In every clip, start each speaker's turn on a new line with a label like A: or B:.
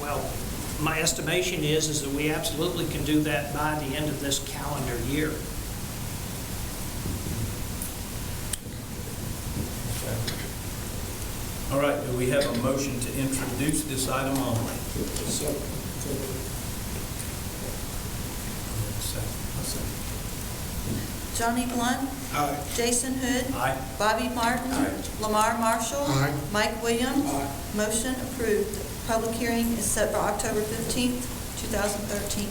A: Well, my estimation is, is that we absolutely can do that by the end of this calendar year.
B: All right, do we have a motion to introduce this item only?
C: Johnny Blunt.
B: Aye.
C: Jason Hood.
B: Aye.
C: Bobby Martin. Lamar Marshall. Mike Williams. Motion approved. Public hearing is set for October 15th, 2013.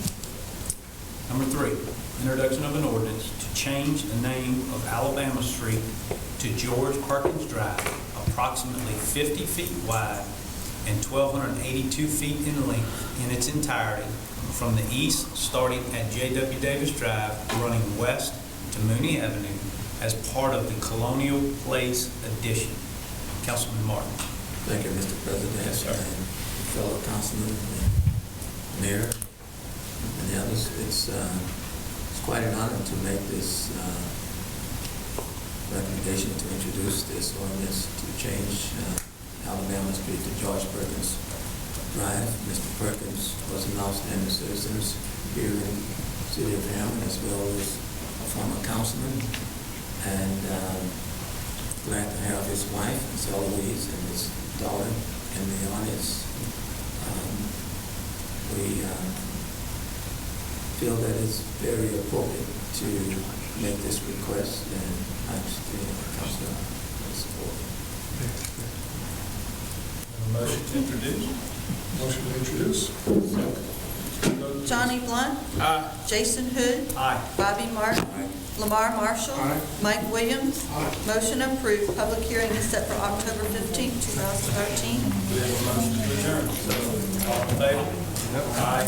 B: Number three, introduction of an ordinance to change the name of Alabama Street to George Perkins Drive, approximately 50 feet wide and 1,282 feet in length in its entirety, from the east, starting at J.W. Davis Drive, running west to Mooney Avenue, as part of the Colonial Place addition. Councilman Martin.
D: Thank you, Mr. President.
B: Yes, sir.
D: And fellow councilmen, and mayor, and the others, it's, uh, it's quite an honor to make this uh, recommendation to introduce this ordinance to change uh, Alabama Street to George Perkins Drive. Mr. Perkins was an outstanding citizen here in the city of Hammond, as well as a former councilman, and um, glad to have his wife, Miss Eloise, and his daughter in the audience. Um, We uh, feel that it's very appropriate to make this request, and I understand the council will support.
B: Motion to introduce.
E: Motion to introduce.
C: Johnny Blunt. Jason Hood.
B: Aye.
C: Bobby Martin. Lamar Marshall. Mike Williams. Motion approved. Public hearing is set for October 15th, 2013.
B: We have a motion to adjourn.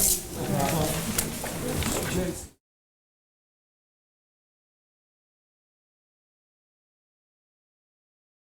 B: So, all in favor? Aye.